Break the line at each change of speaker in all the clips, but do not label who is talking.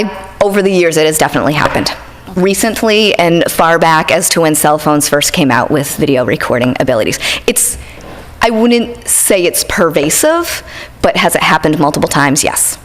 I, over the years, it has definitely happened. Recently and far back as to when cell phones first came out with video recording abilities. It's, I wouldn't say it's pervasive, but has it happened multiple times? Yes.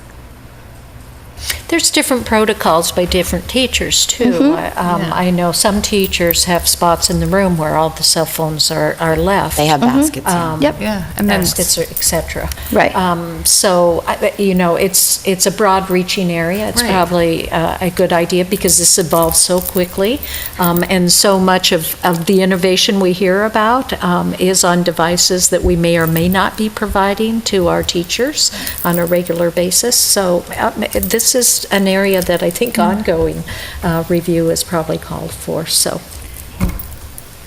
There's different protocols by different teachers, too. I- um, I know some teachers have spots in the room where all the cell phones are are left.
They have
Mm-hmm.
baskets.
Uh,
yeah.
um,
Yep.
Yeah, and then-
Baskets, or et cetera.
Right.
Um, So, I- you know, it's, it's a broad-reaching area. It's
Right.
probably uh, a good idea because this evolves so quickly, um, and so much of, of the innovation we hear about um, is on devices that we may or may not be providing to our teachers on a regular basis. So uh, this is an area that I think
Mm-hmm.
ongoing uh, review is probably called for, so.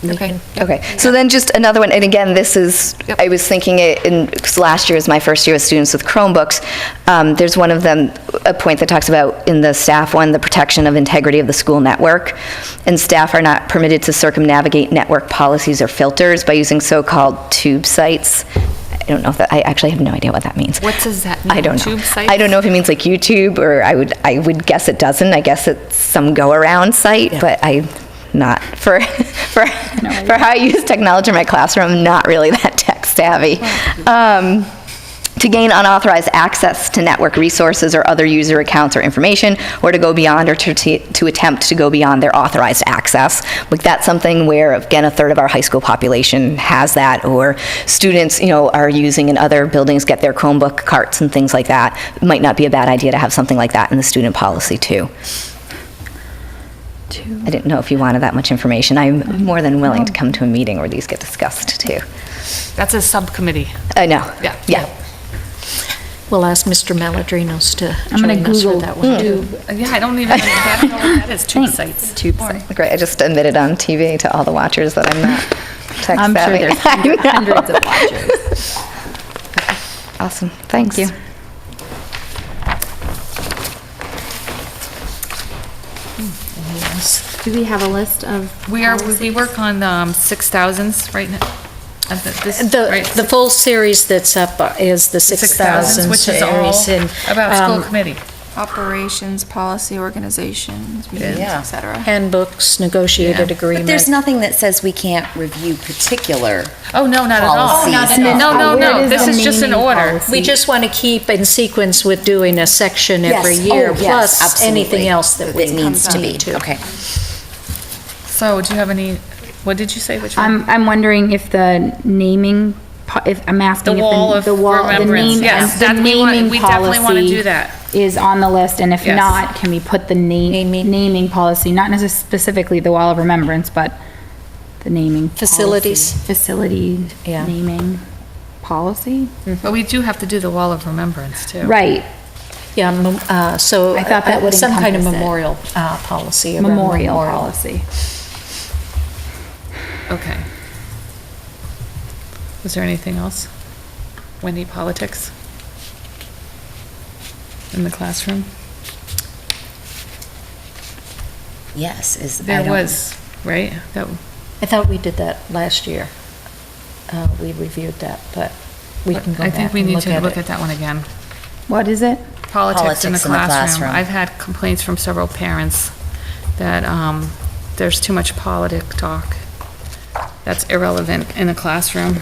we
Okay.
can-
Okay, so then just another one, and again, this is,
Yep.
I was thinking it in, because last year was my first year with students with Chromebooks. Um, There's one of them, a point that talks about in the staff one, the protection of integrity of the school network. And staff are not permitted to circumnavigate network policies or filters by using so-called tube sites. I don't know if that, I actually have no idea what that means.
What does that
I
mean,
don't know.
tube sites?
I don't know if it means like YouTube, or I would, I would guess it doesn't. I guess it's some go-around site, but I'm not, for, for, for how I use technology in my classroom, I'm not really that tech savvy. Um, to gain unauthorized access to network resources or other user accounts or information, or to go beyond or to, to to attempt to go beyond their authorized access. Like, that's something where, again, a third of our high school population has that, or students, you know, are using in other buildings, get their Chromebook carts and things like that. It Might not be a bad idea to have something like that in the student policy, too. I didn't know if you wanted that much information. I'm more than willing to come to a meeting where these get discussed, too.
That's a subcommittee.
I know.
Yeah.
Yeah.
We'll ask Mr. Maladrinos to
I'm gonna
join us for
Google
that one, too.
Yeah, I don't even, I don't know what that is, tube sites.
Tube
Or-
sites.
Great, I just admitted on TV to all the watchers that I'm not tech savvy.
I'm sure there's hundred-
I know.
hundreds of watchers.
Awesome, thanks.
you. Do we have a list of?
We are, we work on um, 6,000s right now. Uh, th- this-
The,
right,
the full series that's up is the 6,000
Which is all
series. and,
about
um,
school committee.
operations, policy, organizations, meetings,
Yeah.
et cetera.
Handbooks, negotiated
Yeah.
agreement.
But there's nothing that says we can't review particular.
Oh, no, not at all.
Policies. Oh, not at all.
No, no,
Where
no,
is
this
the
is just an
meaning
order.
policy?
We just want to keep in sequence with doing a section every
Yes,
year,
oh, yes,
plus
absolutely.
anything else that we
That needs to
need
be,
to.
okay.
So do you have any, what did you say, which one?
I'm, I'm wondering if the naming, po- if, I'm asking
The
if
wall
the,
of
the wall, the
remembrance,
name,
yes,
the
that we want-
naming
we definitely wanna do
policy
that.
is on the list, and if
Yes.
not, can we put the name,
Naming.
naming policy, not necessarily specifically the wall of remembrance, but the naming. policy.
Facilities.
Facility
Yeah.
naming policy?
But we do have to do the wall of remembrance, too.
Right,
Yeah, mem- uh, so.
I thought that
uh,
would
Some kind of
encompass it.
memorial uh, policy. around
memorial policy.
Okay. Was there anything else? Wendy, politics? In the classroom?
Yes, is. I
There
don't-
was, right? That,
I thought we did that last year. Uh, We reviewed that, but we can go
I
back
think we
and
need to look
it.
at that one again.
What is it?
Politics in the
Politics in the
classroom.
classroom.
I've had complaints from several parents that um, there's too much politic talk that's irrelevant in the classroom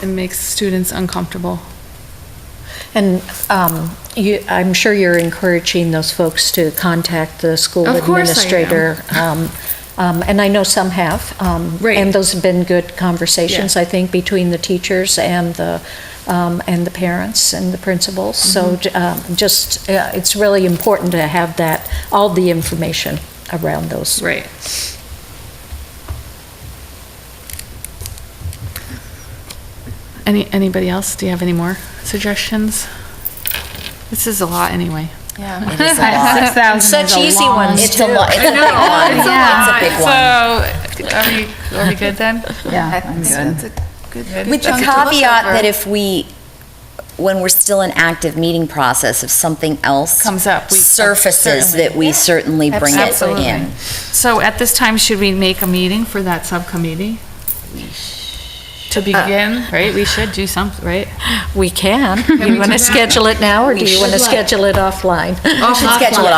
and makes students uncomfortable.
And um, you, I'm sure you're encouraging those folks to contact the school
Of course I am.
administrator. um, um, And I know some have. um,
Right.
And those have been good conversations,
Yeah.
I think, between the teachers and the, um, and the parents and the principals.
Mm-hmm.
So j- um, just, uh, it's really important to have that, all the information around those.
Right. Any, anybody else? Do you have any more suggestions? This is a lot anyway.
Yeah.
It is a lot.
Six thousand is
Such
a
easy
long-
ones.
It's a lot, Oh, it's a
It's
big one.
a lot.
It's a big
So,
one.
are we, are we good then?
Yeah,
I
I'm
think
good.
that's a good
With the
chunk to look
caveat
over.
that if we, when we're still in active meeting process, if something else.
Comes up, we-
Surfaces
certainly.
that we certainly bring it
Absolutely.
in.
So at this time, should we make a meeting for that subcommittee?
uh,
To begin, right, we should do something, right?
We can. You
we
want
do
to
that?
schedule it now, or
We
do you
should.
want to schedule it offline?
should schedule it